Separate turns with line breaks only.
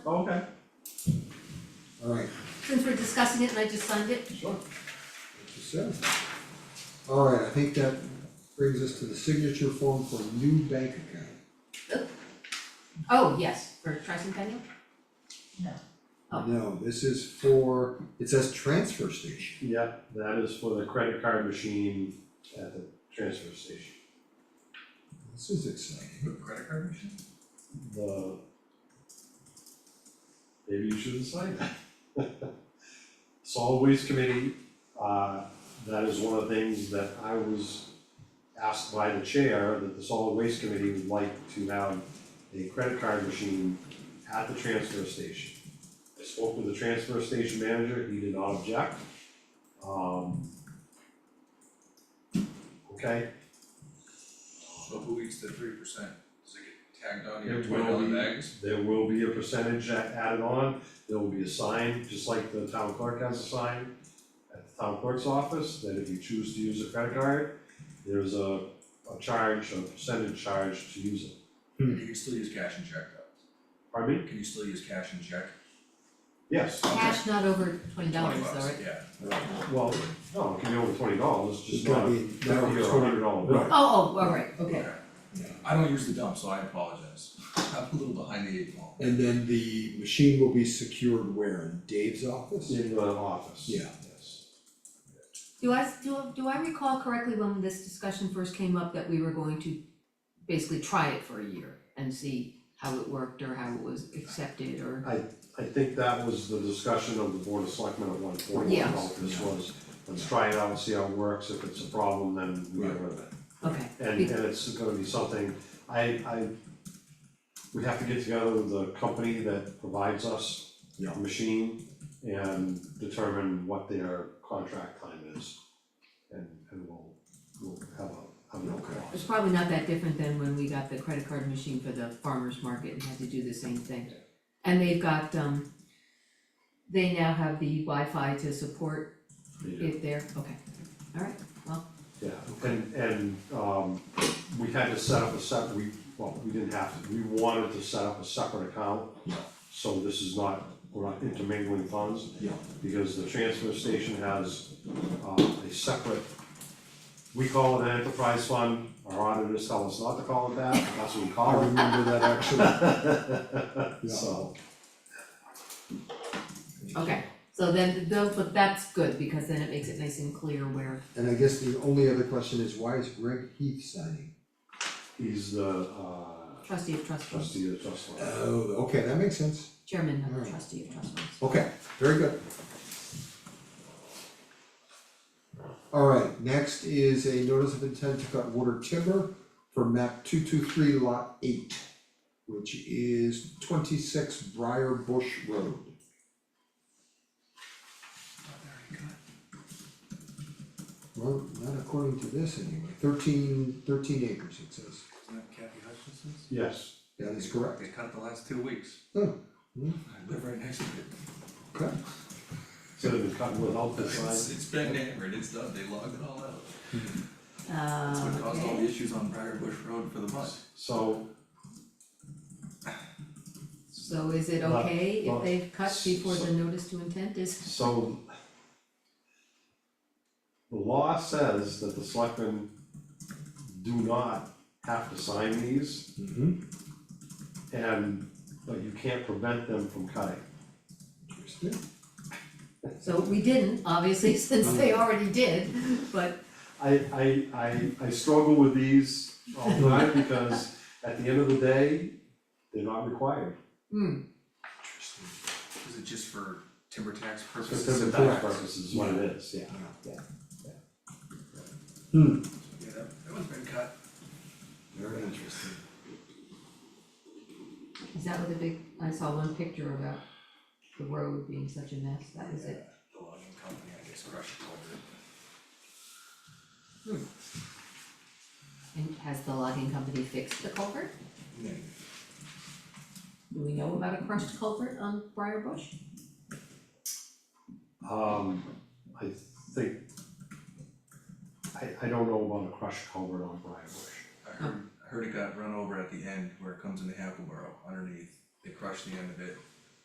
since we're discussing it and I just signed it,
Sure. That's just it. Alright, I think that brings us to the signature form for new bank account.
oh, yes, for tricentennial? Oh.
No, this is for, it says transfer station.
Yep, that is for the credit card machine at the transfer station.
This is exciting.
Credit card machine?
The. Maybe you should assign that. Solid Waste Committee, uh, that is one of the things that I was asked by the chair, that the Solid Waste Committee would like to have a credit card machine at the transfer station. I spoke with the transfer station manager, he did not object. Um. Okay,
So who eats the three percent? Does it get tagged on to
It
your twenty
will
dollar
be-
bags?
There will be a percentage that added on, there will be a sign, just like the town clerk has a sign at the town clerk's office, that if you choose to use a credit card, there's a, a charge, a percentage charge to use it.
Hmm.
You can still use cash and check though.
Pardon me?
Can you still use cash and check?
Yes,
Cash not over twenty dollars
Twenty
though,
bucks,
right?
yeah.
well, no, it can be over twenty dollars,
It's
just not,
gotta be,
not
no,
over
it's
a
gonna-
hundred dollar bill.
right.
Oh, oh, all right, okay.
Okay. I don't use the dump, so I apologize. I'm a little behind the eight ball.
And then the machine will be secured where, in Dave's office?
In the office.
Yeah.
Yes.
Do I, do, do I recall correctly when this discussion first came up that we were going to basically try it for a year and see how it worked or how it was accepted or?
I think that was the discussion of the board of selectmen at one point,
Yeah.
about this was, let's try it out and see how it works, if it's a problem, then we get rid of it.
Okay,
And
Be-
and it's gonna be something, I I, we have to get together with the company that provides us
Yeah.
the machine and determine what their contract time is. And and we'll we'll have a, have no
it's
cost.
probably not that different than when we got the credit card machine for the farmer's market and had to do the same thing. And they've got, um, they now have the Wi-Fi to support
Yeah,
it there, okay, all right,
yeah, and and um we had to set up a separate, we, well, we didn't have to, we wanted to set up a separate account.
Yeah.
So this is not, we're not intermingling funds.
Yeah.
because the transfer station has uh, a separate, we call it an enterprise fund, our auditors tell us not to call it that, but that's what we
I
call
remember that actually.
it.
Yeah.
So,
okay. So then, though, but that's good, because then it makes it nice and clear where,
And I guess the only other question is, why is Greg Heath signing?
he's the uh,
trustee of trust funds,
trustee of trust fund.
Oh, okay, that makes sense.
chairman of
Alright.
the trustee of trust funds.
Okay, very good. Alright, next is a notice of intent to cut water timber for map two two three lot eight, which is twenty-six Briar Bush Road.
Oh,
Well, not according to this anyway, Thirteen, thirteen acres it says,
Isn't that Kathy Hutchinson's?
Yes,
that is correct,
They cut it the last two weeks.
Oh, hmm.
I live right next to it.
okay,
so they've been cutting without the
It's,
sign,
it's been hammered, it's done, they logged it all out. That's
Uh,
what caused all the
okay,
issues on Briar Bush Road for the month.
so
so is it
Lot-
okay if
lot-
they've cut before
so-
the notice to intent is?
So. The law says that the selectmen do not have to sign these
mm-hmm,
Mm-hmm. and, but you can't prevent them from cutting.
interesting.
So we didn't, obviously, since they already did, but,
I, I, I, I struggle with these all the time because at the end of the day, they're not required
hmm,
Interesting. Is it just for timber tax
for
purposes?
certain
Correct.
tax purposes, is what it is, yeah.
Yeah, that, that one's been cut.
Very interesting.
is that what the big, I saw one picture about the road being such a mess, that was it.
Yeah, The logging company, I guess, crushed it over it.
And has the logging company fixed the culvert? Do we know about a crushed culvert on Briar Bush?
Um, I think, I, I don't know about a crushed culvert on Briar Bush.
I heard, I heard it got run over at the end where it comes into Hackleboro underneath, they crushed the end of it,